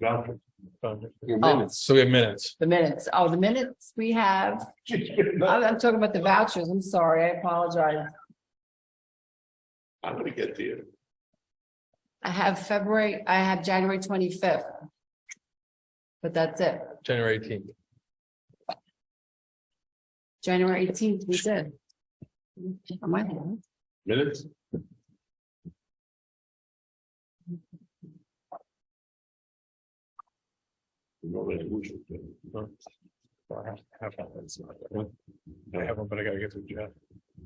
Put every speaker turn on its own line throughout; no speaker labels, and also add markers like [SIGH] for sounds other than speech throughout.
vouchers.
Your
You're-
Oh.
minutes. So we have
[LAUGHS]
minutes.
The minutes, oh, the minutes we have,
Uh,
I'm, I'm talking about the vouchers, I'm sorry, I apologize.
I'm gonna get to you.
I have February, I have January twenty-fifth. But that's it,
January eighteenth.
January eighteenth, we did. Am I wrong?
Minutes? No resolution.
I have one, but I gotta get to Jeff.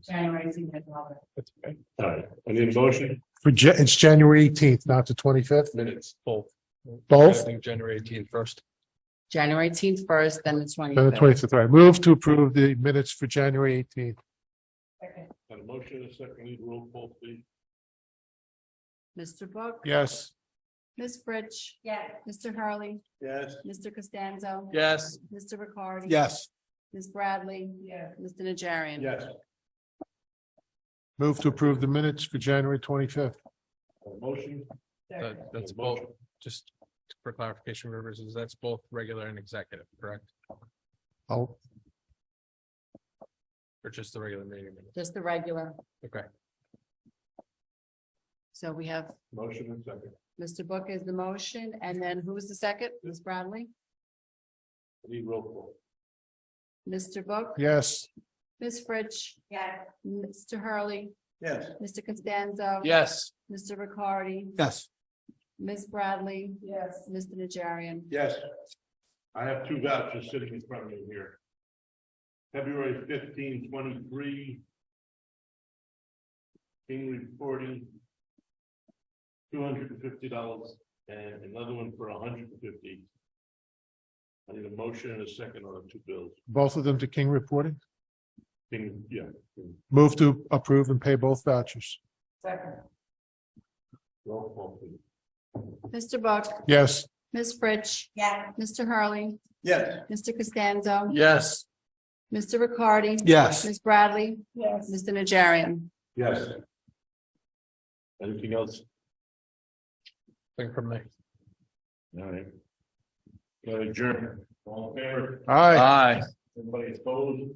January eighteenth, Robert.
That's okay.
All right, I need a motion,
For, Ja- it's January eighteenth, not the twenty-fifth,
Minutes, both.
Both?
I think January eighteenth first.
January eighteenth first, then the twenty.
then the twenty-fifth, right? Move to approve the minutes for January eighteenth.
Got a motion, and a second, lead roll call, please.
Mr. Book?
Yes.
Ms. Fritsch? Yeah. Mr. Hurley?
Yes.
Mr. Costanzo?
Yes.
Mr. Ricardi?
Yes.
Ms. Bradley? Yeah. Mr. Najarian?
Yes.
Move to approve the minutes for January twenty-fifth.
Got a Motion.
That- that's
Got a motion.
Just for clarification, Rivers, is that's both regular and executive, correct?
I'll,
Or just the regular meeting? minutes?
Just the regular.
Okay.
So we have
Motion and second.
Mr. Book is the motion, and then who is the second? Ms. Bradley?
Need roll call.
Mr. Book?
yes.
Ms. Fritsch? Yeah. Mr. Hurley?
Yes.
Mr. Costanzo?
Yes.
Mr. Ricardi?
Yes.
Ms. Bradley? Yes. Mr. Najarian?
Yes. I have two vouchers sitting in front of me here. February fifteen twenty-three. King reporting. Two hundred and fifty dollars and another one for hundred and fifty. I need a motion and a second on the two bills.
Both of them to King reporting.
King, yeah.
Move to approve and pay both vouchers.
Second.
Roll call, please.
Mr. Book?
Yes.
Ms. Fritsch? Yeah. Mr. Hurley?
Yes.
Mr. Costanzo?
Yes.
Mr. Ricardi?
Yes.
Ms. Bradley? Yes. Mr. Najarian?
Yes. Anything else?
Thing from me.
All right. Got adjourned. All in favor?
Aye.
Aye.
Everybody opposed?